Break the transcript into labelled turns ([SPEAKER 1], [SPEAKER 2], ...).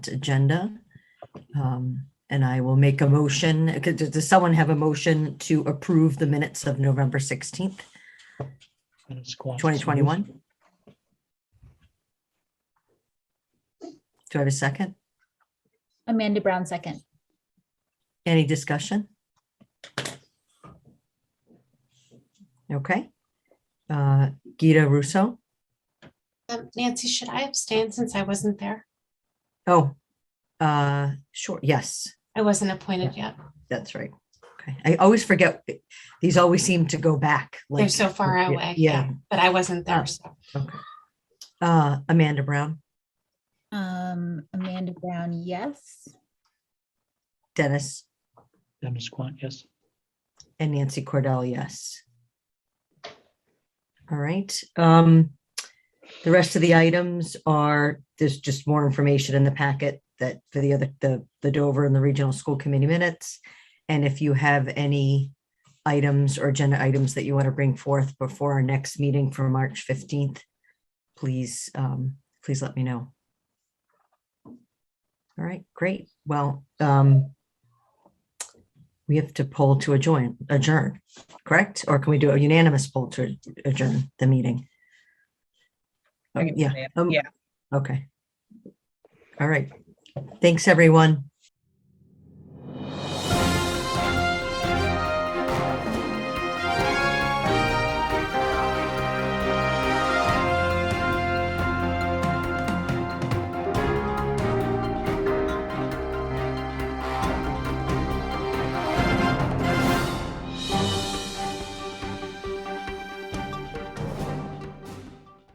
[SPEAKER 1] agenda. Um, And I will make a motion, could- does does someone have a motion to approve the minutes of November 16th,
[SPEAKER 2] Minutes clock.
[SPEAKER 1] 2021? Do I have a second?
[SPEAKER 3] Amanda Brown, second.
[SPEAKER 1] Any discussion? Okay. Uh, Gita Russo?
[SPEAKER 4] Um, Nancy, should I abstain since I wasn't there?
[SPEAKER 1] Oh, uh, sure, yes.
[SPEAKER 4] I wasn't appointed yet.
[SPEAKER 1] That's right. Okay. I always forget. These always seem to go back.
[SPEAKER 4] They're
[SPEAKER 1] like-
[SPEAKER 4] so far
[SPEAKER 1] yeah,
[SPEAKER 4] away.
[SPEAKER 1] Yeah. Um,
[SPEAKER 4] But I wasn't there, so.
[SPEAKER 1] Uh, Amanda Brown,
[SPEAKER 3] Um, Amanda Brown, yes.
[SPEAKER 1] Dennis,
[SPEAKER 2] Dennis Quan, yes.
[SPEAKER 1] and Nancy Cordell, yes. All right. Um, the rest of the items are, there's just more information in the packet that for the other, the, the Dover and the Regional School Committee minutes. And if you have any items or agenda items that you want to bring forth before our next meeting for March 15th, please, um, please let me know. All right, great. Well, um, we have to poll to adjourn, adjourn, correct? Or can we do a unanimous poll to adjourn the meeting?
[SPEAKER 5] I can do
[SPEAKER 1] Yeah.
[SPEAKER 5] that.
[SPEAKER 1] um,
[SPEAKER 5] Yeah.
[SPEAKER 1] Okay. All right. Thanks, everyone.